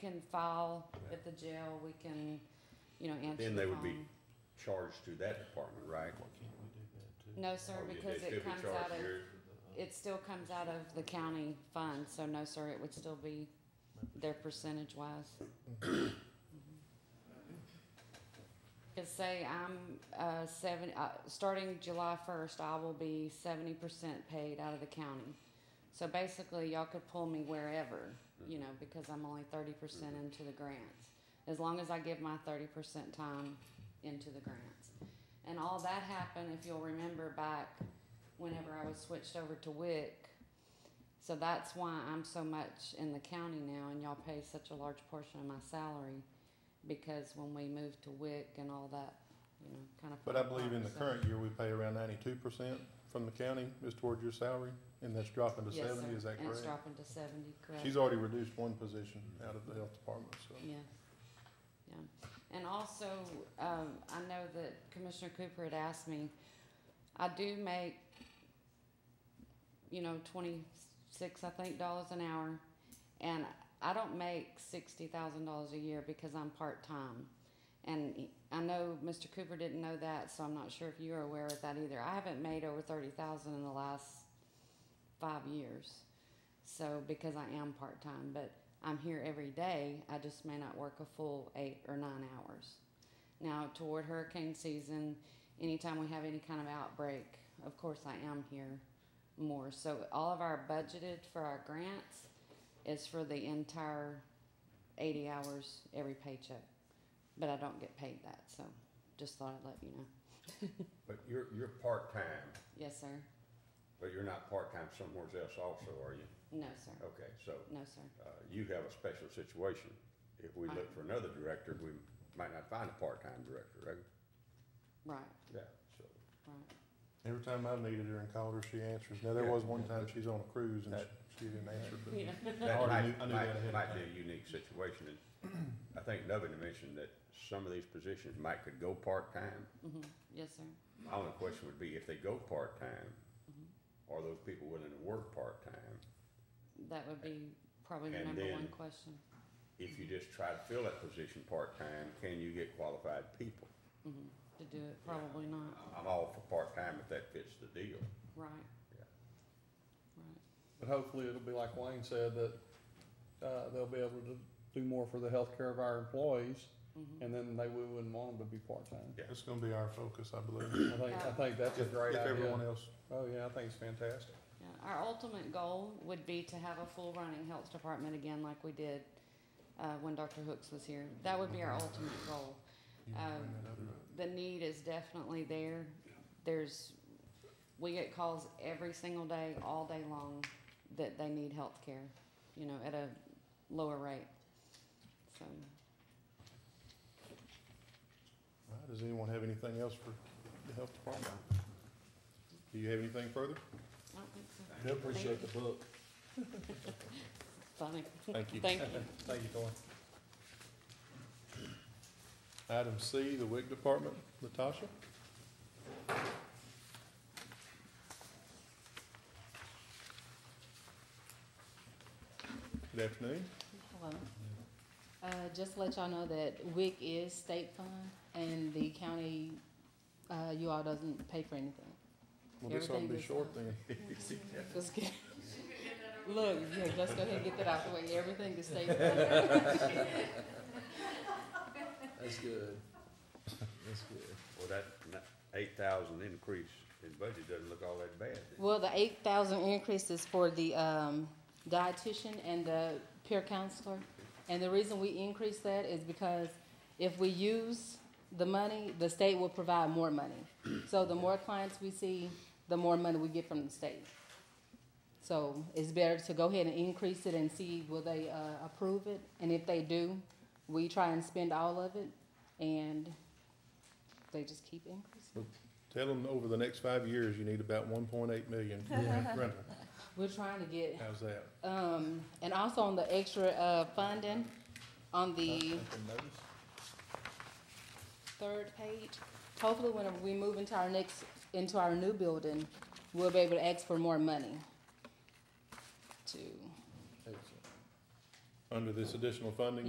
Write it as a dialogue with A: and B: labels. A: can file at the jail, we can, you know, answer
B: Then
A: the
B: they would be
A: phone.
B: charged to that department, right?
A: No, sir,
B: Or would
A: because
B: they Oh, still
A: it
B: be
A: comes
B: charged
A: out of,
B: here?
A: it still comes out of the county fund, so no, sir, it would still be their percentage wise. Cause say I'm, uh, seven, uh, starting July first, I will be seventy percent paid out of the county. So basically, y'all could pull me wherever, you know, because I'm only thirty percent into the grants. As long as I give my thirty percent time into the grants. And all that happened, if you'll remember back whenever I was switched over to WIC. So that's why I'm so much in the county now and y'all pay such a large portion of my salary because when we moved to WIC and all that, you know, kind of.
C: But I believe in the
A: So-
C: current year, we pay around ninety-two percent from the county is toward your salary, and that's dropping to
A: Yes,
C: seventy,
A: sir.
C: is that
A: And it's
C: correct?
A: dropping to seventy, correct.
C: She's already reduced one position out of the health department, so.
A: Yeah, yeah. And also, um, I know that Commissioner Cooper had asked me, I do make, you know, twenty-six, I think, dollars an hour. And I don't make sixty thousand dollars a year because I'm part-time. And he- I know Mr. Cooper didn't know that, so I'm not sure if you're aware of that either. I haven't made over thirty thousand in the last five years. So, because I am part-time, but I'm here every day, I just may not work a full eight or nine hours. Now, toward hurricane season, anytime we have any kind of outbreak, of course, I am here more. So, all of our budgeted for our grants is for the entire 80 hours every paycheck, but I don't get paid that. So, just thought I'd let you know.
B: But you're, you're part-time,
A: Yes, sir.
B: but you're not part-time somewhere else also, are you?
A: No, sir.
B: Okay, so,
A: No, sir.
B: uh, you have a special situation. If we look for another director, we might not find a part-time director, right?
A: Right,
B: Yeah, so.
A: right.
C: Every time I needed her and called her, she answers. Now, there
B: Yeah.
C: was one time she's on a cruise and she- she didn't answer, but.
A: Yeah.
B: That
C: already
B: might,
C: knew- I knew that ahead
B: might,
C: of
B: might be a unique situation, and I think Nubbin mentioned that some of these positions might could go part-time.
A: hmm Yes, sir.
B: My only question would be, if they go part-time,
A: Mm-hmm.
B: are those people willing to work part-time?
A: That would be probably the
B: And
A: number one
B: then-
A: question.
B: If you just try to fill that position part-time, can you get qualified people?
A: Mhm. To do it, probably not.
B: I'm all for part-time if that fits the deal.
A: Right.
B: Yeah.
A: Right.
D: But hopefully it'll be like Wayne said, that, uh, they'll be able to do more for the healthcare of our employees,
A: Mhm.
D: and then they, we wouldn't want them to be part-time.
C: It's gonna be our focus, I
D: I
C: believe,
D: think, I
A: Yeah.
D: think that's a
C: if,
D: great
C: if everyone
D: idea.
C: else,
D: Oh, yeah, I think it's fantastic.
A: Yeah, our ultimate goal would be to have a full running health department again like we did, uh, when Dr. Hooks was here. That would be our ultimate goal.
C: you wanna
A: Um,
C: bring that other up.
A: The need is definitely there. There's, we get calls every single day, all day long, that they need health care, you know, at a lower rate. So,
C: All right, Does anyone have anything else for the health department? Do you have anything further?
A: I don't think so.
E: I appreciate the book.
A: Funny.
C: Thank you.
A: Thank you.
D: Thank you, Thor.
C: Item C, the WIC department, Latasha? Good afternoon.
F: Hello. Uh, just to let y'all know that WIC is state fund and the county, uh, you all doesn't pay for anything.
C: Well, this ought to be short then.
F: Just get- Look, yeah, let's go ahead and get that out the way. Everything is state fund.
E: That's good. That's good.
B: Well, that eight thousand increase in budget doesn't look all that bad.
F: Well, the eight thousand increase is for the, um, dietitian and the peer counselor. And the reason we increase that is because if we use the money, the state will provide more money. So the more clients we see, the more money we get from the state. So it's better to go ahead and increase it and see will they, uh, approve it, and if they do, we try and spend all of it, and they just keep increasing.
C: Tell them over the next five years, you need about one point eight million for rental.
F: We're trying to get
C: How's that?
F: Um, and also on the extra, uh, funding, on the third page, hopefully when we move into our next, into our new building, we'll be able to ask for more money to.
E: Excellent.
C: Under this additional funding?